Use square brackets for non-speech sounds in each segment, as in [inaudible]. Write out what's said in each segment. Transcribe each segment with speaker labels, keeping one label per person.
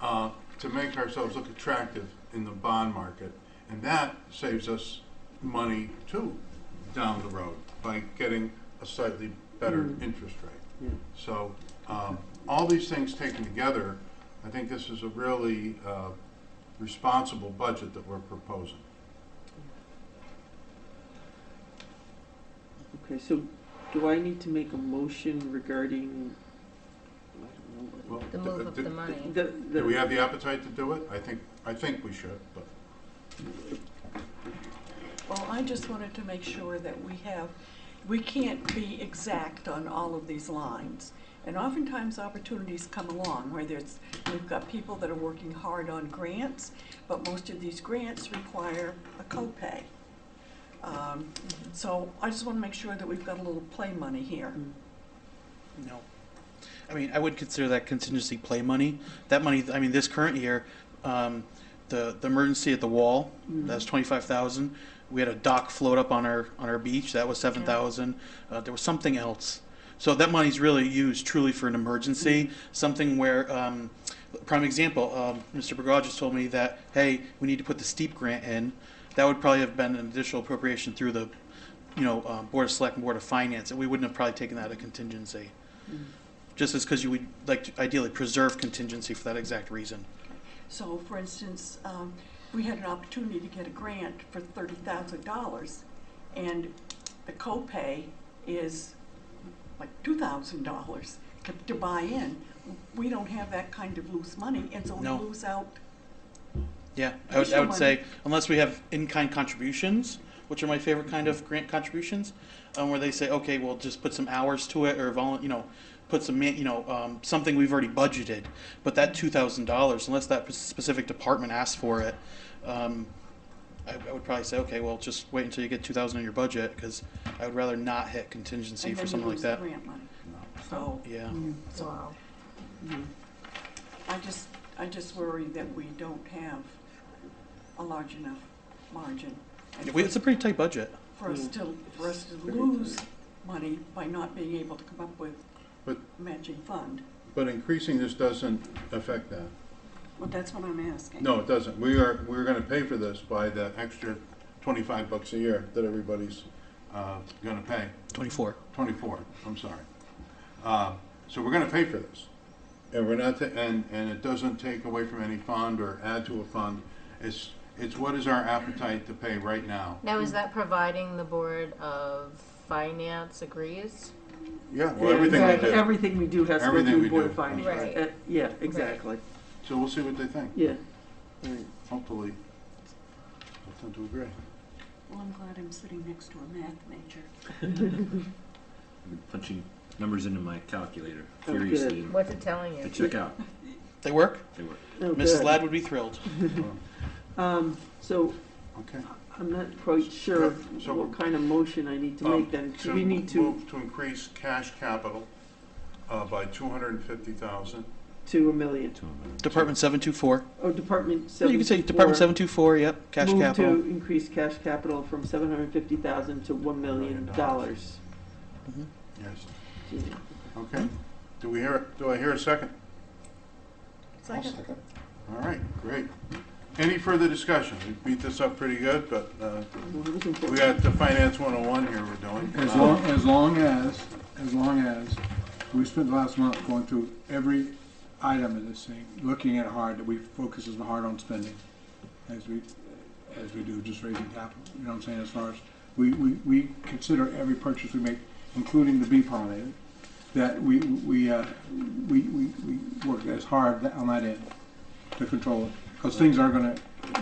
Speaker 1: uh, to make ourselves look attractive in the bond market. And that saves us money too down the road by getting a slightly better interest rate. So, um, all these things taken together, I think this is a really, uh, responsible budget that we're proposing.
Speaker 2: Okay, so do I need to make a motion regarding, I don't know.
Speaker 1: Well,
Speaker 2: what-
Speaker 3: The
Speaker 1: d- uh,
Speaker 3: move of
Speaker 1: d-
Speaker 3: the money.
Speaker 2: The,
Speaker 1: Do we
Speaker 2: the,
Speaker 1: have the appetite to do it? I think, I think we should, but
Speaker 4: Well, I just wanted to make sure that we have, we can't be exact on all of these lines. And oftentimes opportunities come along where there's, we've got people that are working hard on grants, but most of these grants require a copay. Um, So I just want to make sure that we've got a little play money here.
Speaker 5: No. I mean, I would consider that contingency play money. That money, I mean, this current year, um, the, the emergency at the wall, that was twenty-five thousand. We had a dock float up on our, on our beach, that was seven thousand. Uh, there was something else. So that money's really used truly for an emergency, something where, um, prime example, um, Mr. Bergaj just told me that, hey, we need to put the steep grant in. That would probably have been an additional appropriation through the, you know, uh, Board of Select and Board of Finance, and we wouldn't have probably taken that out of contingency just as because you would like to ideally preserve contingency for that exact reason.
Speaker 4: So for instance, um, we had an opportunity to get a grant for thirty thousand dollars and the copay is like two thousand dollars to buy in. We don't have that kind of loose money and so we
Speaker 5: No.
Speaker 4: lose out.
Speaker 5: Yeah, I would, I
Speaker 4: Additional
Speaker 5: would say unless we have in-kind contributions, which are my favorite kind of grant contributions, um, where they say, okay, we'll just put some hours to it or volun, you know, put some, man- you know, um, something we've already budgeted. But that two thousand dollars, unless that specific department asks for it, um, I, I would probably say, okay, well, just wait until you get two thousand in your budget because I would rather not hit contingency
Speaker 4: and then
Speaker 5: for
Speaker 4: we
Speaker 5: something like
Speaker 4: lose the
Speaker 5: that.
Speaker 4: Grant money. So,
Speaker 5: Yeah.
Speaker 4: so
Speaker 3: Wow.
Speaker 2: hmm.
Speaker 4: I just, I just worry that we don't have a large enough margin. and
Speaker 5: We- It's a pretty tight budget.
Speaker 4: For us
Speaker 2: Mm.
Speaker 4: to, for us to
Speaker 1: Hmm. Very
Speaker 4: lose money by not being able to come up with
Speaker 1: But-
Speaker 4: matching fund.
Speaker 1: But increasing this doesn't affect that.
Speaker 4: Well, that's what I'm asking.
Speaker 1: No, it doesn't. We are, we're gonna pay for this by the extra twenty-five bucks a year that everybody's, uh, gonna pay.
Speaker 5: Twenty-four.
Speaker 1: Twenty-four, I'm sorry. Uh, so we're gonna pay for this. And we're not, ta- and, and it doesn't take away from any fund or add to a fund. It's, it's what is our appetite to pay right now?
Speaker 3: Now, is that providing the Board of Finance agrees?
Speaker 1: Yeah, well, everything we
Speaker 2: Exactly.
Speaker 1: do.
Speaker 2: Everything we do has to go
Speaker 1: Everything
Speaker 2: through
Speaker 1: we
Speaker 2: Board of
Speaker 1: do.
Speaker 2: Finance.
Speaker 3: Right.
Speaker 2: Uh, Yeah, exactly,
Speaker 1: So we'll see what they think.
Speaker 2: yeah. Right.
Speaker 1: Hopefully, they'll tend to agree.
Speaker 2: [laughs]
Speaker 4: Well, I'm glad I'm sitting next to a math major.
Speaker 6: I've been punching numbers into my calculator
Speaker 2: Oh,
Speaker 6: furiously
Speaker 3: What's it telling
Speaker 6: to
Speaker 3: you?
Speaker 6: check out.
Speaker 5: They work?
Speaker 6: They were
Speaker 2: Oh,
Speaker 5: Mrs.
Speaker 2: good.
Speaker 5: Ladd would be thrilled.
Speaker 2: Um, so
Speaker 1: Okay.
Speaker 2: I'm not quite sure
Speaker 1: So
Speaker 2: what
Speaker 1: we're-
Speaker 2: kind of motion I need to
Speaker 1: Um,
Speaker 2: make then. Do we need to,
Speaker 1: Move to increase cash capital uh, by 250,000.
Speaker 2: to a million?
Speaker 5: Department seven two four.
Speaker 2: Oh, Department
Speaker 5: You
Speaker 2: seven.
Speaker 5: can say Department seven two four, yep, cash
Speaker 2: Move
Speaker 5: capital.
Speaker 2: to increase cash capital from seven hundred and fifty thousand to one million dollars.
Speaker 1: Yes, okay. Do we hear, do I hear a second? All right, great. Any further discussion? We beat this up pretty good, but uh, we got the Finance 101 here we're doing.
Speaker 7: As
Speaker 1: Uh,
Speaker 7: long, as long as, as long as, we spent the last month going through every item of this thing, looking at hard, that we focus as hard on spending as we, as we do just raising capital, you know what I'm saying, as far as, we, we, we consider every purchase we make, including the bee pollinator, that we, we, uh, we, we, we work as hard on that end to control it, because things are gonna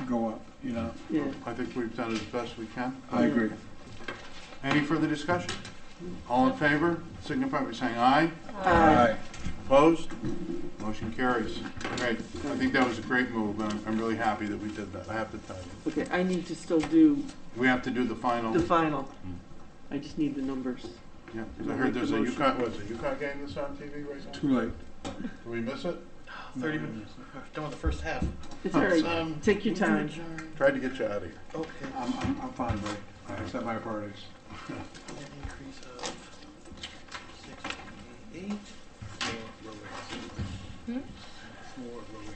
Speaker 7: go up, you know?
Speaker 2: Yeah,
Speaker 1: I think we've done as best we can.
Speaker 7: I agree.
Speaker 1: Any further discussion? All in favor, signify by saying aye.
Speaker 7: Aye.
Speaker 1: Opposed? Motion carries. Great. I think that was a great move, and I'm- I'm really happy that we did that, I have to tell you.
Speaker 2: okay, I need to still do
Speaker 1: We have to do the final,
Speaker 2: the final. I just need the numbers.
Speaker 1: yeah, 'cause I heard there's a UConn, was it UConn game that's on TV right now?
Speaker 7: Too late.
Speaker 1: Did we miss it?
Speaker 5: Thirty minutes. Done with the first half.
Speaker 2: It's all right,
Speaker 5: Um,
Speaker 2: take your time.
Speaker 1: Tried to get you out of here.
Speaker 5: Okay.
Speaker 7: I'm, I'm, I'm fine, Rick. I accept my priorities.
Speaker 5: An increase of six eight. More Rowan. More Rowan.